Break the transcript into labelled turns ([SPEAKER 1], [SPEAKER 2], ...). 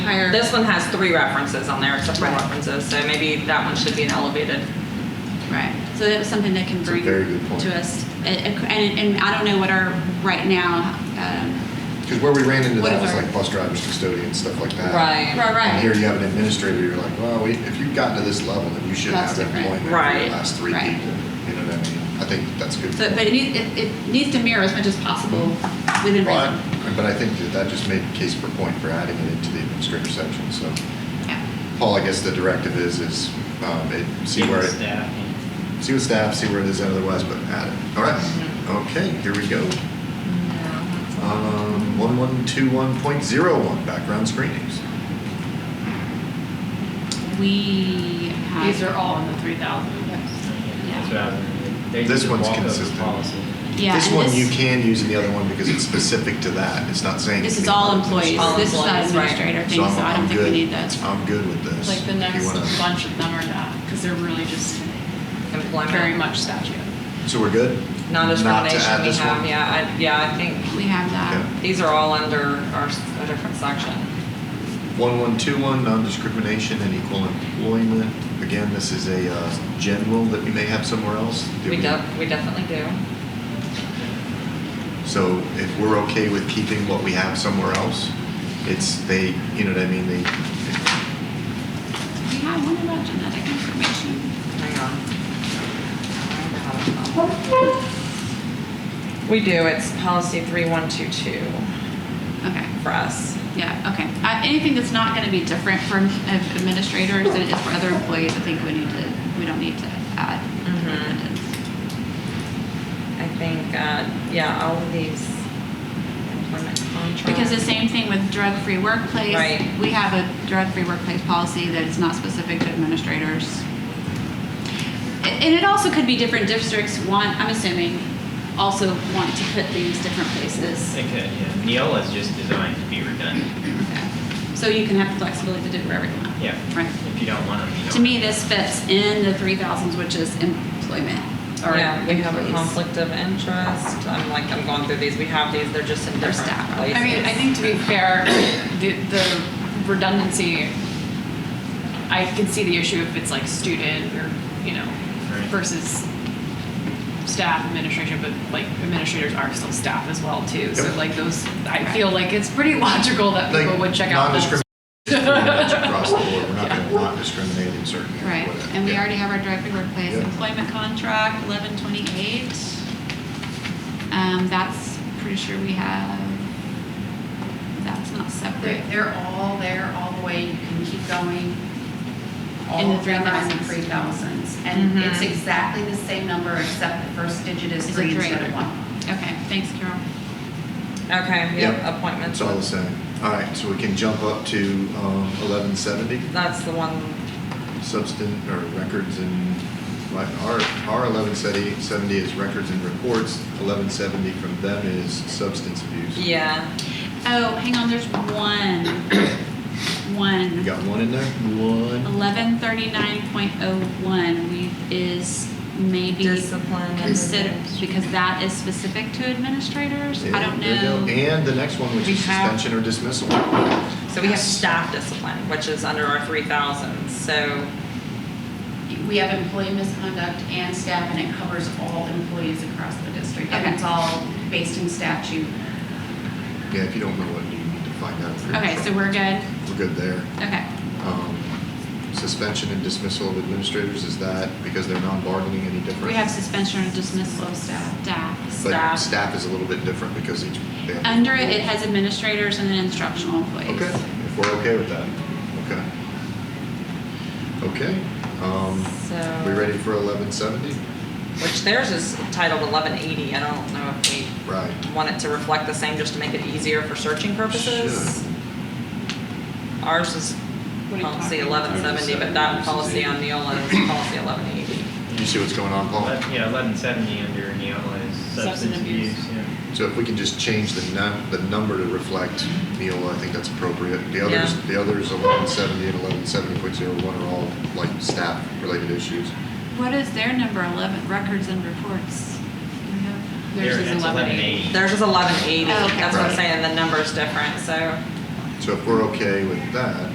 [SPEAKER 1] higher.
[SPEAKER 2] This one has three references on there, except for
[SPEAKER 1] Right.
[SPEAKER 2] references, so maybe that one should be an elevated.
[SPEAKER 1] Right. So that was something that can
[SPEAKER 3] It's a
[SPEAKER 1] bring
[SPEAKER 3] very good point.
[SPEAKER 1] to us. And, and, and I don't know what our, right now, um,
[SPEAKER 3] Because where we ran into
[SPEAKER 1] What
[SPEAKER 3] that
[SPEAKER 1] if
[SPEAKER 3] was
[SPEAKER 1] our-
[SPEAKER 3] like bus drivers, custodians, stuff like that.
[SPEAKER 1] right,
[SPEAKER 3] And here
[SPEAKER 1] right.
[SPEAKER 3] you have an administrator, you're like, well, we- if you've gotten to this level, then you should
[SPEAKER 1] That's
[SPEAKER 3] have
[SPEAKER 1] different.
[SPEAKER 3] employment for the
[SPEAKER 2] Right.
[SPEAKER 3] last three people.
[SPEAKER 1] Right.
[SPEAKER 3] You know what I mean? I think that's good.
[SPEAKER 1] So, but it needs, it, it needs to mirror as much as possible within
[SPEAKER 3] Well,
[SPEAKER 1] reason.
[SPEAKER 3] I- But I think that that just made case for point for adding it into the administrator section, so.
[SPEAKER 1] Yeah.
[SPEAKER 3] Paul, I guess the directive is, is, um, it, see where it,
[SPEAKER 4] Staff.
[SPEAKER 3] see with staff, see where it is otherwise, but add it. All
[SPEAKER 1] Mm-hmm.
[SPEAKER 3] right, okay, here we go. Um, one one two one point zero one, background screenings.
[SPEAKER 1] We have.
[SPEAKER 5] These are all in the three thousand.
[SPEAKER 4] That's what I was gonna do. They
[SPEAKER 3] This
[SPEAKER 4] just
[SPEAKER 3] one's
[SPEAKER 4] walk up the
[SPEAKER 3] consistent.
[SPEAKER 4] policy.
[SPEAKER 1] Yeah.
[SPEAKER 3] This
[SPEAKER 1] and
[SPEAKER 3] one you can use and the other one because it's specific to that, it's not saying.
[SPEAKER 1] This is
[SPEAKER 3] anything
[SPEAKER 1] all
[SPEAKER 3] about
[SPEAKER 1] employees.
[SPEAKER 2] All
[SPEAKER 1] This is not
[SPEAKER 2] employees, right.
[SPEAKER 1] administrator thing, so
[SPEAKER 3] So I'm-
[SPEAKER 1] I don't
[SPEAKER 3] I'm
[SPEAKER 1] think we
[SPEAKER 3] good.
[SPEAKER 1] need those.
[SPEAKER 3] I'm good with this.
[SPEAKER 5] Like the
[SPEAKER 3] If you
[SPEAKER 5] next
[SPEAKER 3] wanna-
[SPEAKER 5] bunch of them are not, because they're really just
[SPEAKER 2] Employment.
[SPEAKER 5] very much statute.
[SPEAKER 3] So we're good? Not to add
[SPEAKER 2] Non-discrimination we
[SPEAKER 3] this
[SPEAKER 2] have,
[SPEAKER 3] one?
[SPEAKER 2] yeah, I, yeah, I think
[SPEAKER 1] We have that.
[SPEAKER 3] Okay.
[SPEAKER 2] these are all under our, s- a different section.
[SPEAKER 3] 1121, non-discrimination and equal employment. Again, this is a uh, general that we may have somewhere else. Do
[SPEAKER 2] We def, we definitely do.
[SPEAKER 3] So if we're okay with keeping what we have somewhere else, it's, they, you know what I mean, they,
[SPEAKER 1] We have one about genetic information.
[SPEAKER 2] Hang on. We do, it's policy three one two two
[SPEAKER 1] Okay.
[SPEAKER 2] for us.
[SPEAKER 1] Yeah, okay. Uh, anything that's not going to be different for uh, administrators than it is for other employees, I think we need to, we don't need to add.
[SPEAKER 2] Mhm. I think, uh, yeah, all of these employment contracts.
[SPEAKER 1] Because the same thing with drug-free workplace.
[SPEAKER 2] Right.
[SPEAKER 1] We have a drug-free workplace policy that is not specific to administrators. A- And it also could be different districts want, I'm assuming, also want to put these different places.
[SPEAKER 4] It could, yeah. Neola is just designed to be redundant.
[SPEAKER 1] Okay. So you can have the flexibility to do whatever you want.
[SPEAKER 4] Yeah.
[SPEAKER 1] Right.
[SPEAKER 4] If you don't want them, you don't.
[SPEAKER 1] To me, this fits in the three thousands, which is employment or
[SPEAKER 2] Yeah, we have a
[SPEAKER 1] employees.
[SPEAKER 2] conflict of interest. I'm like, I'm going through these. We have these, they're just in
[SPEAKER 1] They're
[SPEAKER 2] different
[SPEAKER 1] staff.
[SPEAKER 2] places.
[SPEAKER 5] I mean, I think to be fair, the, the redundancy, I can see the issue if it's like student or, you know,
[SPEAKER 4] Right.
[SPEAKER 5] versus staff administration, but like administrators are still staff as well too. So
[SPEAKER 3] Yep.
[SPEAKER 5] like those, I feel like it's pretty logical that people would
[SPEAKER 3] like,
[SPEAKER 5] check out those.
[SPEAKER 3] non-discrimination pretty much across the board. We're not going to not discriminate in certain.
[SPEAKER 1] Right, and we
[SPEAKER 3] Yeah.
[SPEAKER 1] already have our directed workplace
[SPEAKER 3] Yeah.
[SPEAKER 1] employment contract, eleven twenty-eight. Um, that's, pretty sure we have, that's not
[SPEAKER 6] They're,
[SPEAKER 1] separate.
[SPEAKER 6] they're all there, all the way, you can keep going.
[SPEAKER 1] In
[SPEAKER 6] All
[SPEAKER 1] the
[SPEAKER 6] of them Mm-hmm. are in the
[SPEAKER 1] 3,000s.
[SPEAKER 6] three thousands, and
[SPEAKER 2] Mhm.
[SPEAKER 6] it's exactly the same number, except the first digit is
[SPEAKER 1] Is it
[SPEAKER 6] three instead
[SPEAKER 1] three?
[SPEAKER 6] of one.
[SPEAKER 1] Okay, thanks, Carol.
[SPEAKER 2] Okay,
[SPEAKER 3] Yep.
[SPEAKER 2] yeah, appointments.
[SPEAKER 3] It's all the same. All right, so we can jump up to um, 1170.
[SPEAKER 2] That's the one,
[SPEAKER 3] substance or records and like our our eleven seventy seventy is records and reports. Eleven seventy from them is substance abuse.
[SPEAKER 2] yeah.
[SPEAKER 1] Oh, hang on, there's one,
[SPEAKER 3] You
[SPEAKER 1] one,
[SPEAKER 3] got one in there. One.
[SPEAKER 1] eleven thirty-nine point oh one, we, is maybe
[SPEAKER 2] Discipline.
[SPEAKER 1] consider, because that is specific to administrators, I don't
[SPEAKER 3] Yeah, there you
[SPEAKER 1] know.
[SPEAKER 3] go. And the next one, which
[SPEAKER 2] We
[SPEAKER 3] is
[SPEAKER 2] have-
[SPEAKER 3] suspension or dismissal.
[SPEAKER 2] So we have staff discipline, which is under our three thousands, so,
[SPEAKER 6] We have employee misconduct and staff, and it covers all employees across the district, and
[SPEAKER 1] Okay.
[SPEAKER 6] it's all based in statute.
[SPEAKER 3] Yeah, if you don't know what you need to find out. for
[SPEAKER 1] Okay, so
[SPEAKER 3] yourself.
[SPEAKER 1] we're good,
[SPEAKER 3] we're good there.
[SPEAKER 1] okay.
[SPEAKER 3] Um, suspension and dismissal of administrators is that because they're non-bargaining any different?
[SPEAKER 1] We have suspension or dismissal of staff. staff.
[SPEAKER 3] But
[SPEAKER 2] staff.
[SPEAKER 3] staff is a little bit different because each. they have-
[SPEAKER 1] Under it, it has administrators and then instructional employees.
[SPEAKER 3] Okay, if we're okay with that, okay. Okay, um,
[SPEAKER 2] so.
[SPEAKER 3] we ready for eleven seventy?
[SPEAKER 2] Which theirs is titled eleven eighty. I don't know if we
[SPEAKER 3] Right.
[SPEAKER 2] want it to reflect the same just to make it easier for searching purposes. Ours is
[SPEAKER 5] What are you
[SPEAKER 2] policy
[SPEAKER 5] talking
[SPEAKER 2] eleven seventy, but that policy on Neola is policy eleven eighty.
[SPEAKER 3] You see what's going on, Paul?
[SPEAKER 4] Ele- Yeah, eleven seventy under Neola is substance abuse, yeah.
[SPEAKER 3] So if we can just change the num, the number to reflect Neola, I think that's appropriate. The others,
[SPEAKER 2] Yeah.
[SPEAKER 3] the others, eleven seventy and eleven seventy point zero one are all like staff-related issues.
[SPEAKER 1] What is their number 11, records and reports? We have-
[SPEAKER 5] Theirs
[SPEAKER 4] There,
[SPEAKER 5] is
[SPEAKER 4] that's
[SPEAKER 5] 1180.
[SPEAKER 2] Theirs is eleven eighty.
[SPEAKER 1] Oh, okay.
[SPEAKER 2] That's what I'm
[SPEAKER 3] Right.
[SPEAKER 2] saying. The number's different, so.
[SPEAKER 3] So if we're okay with that,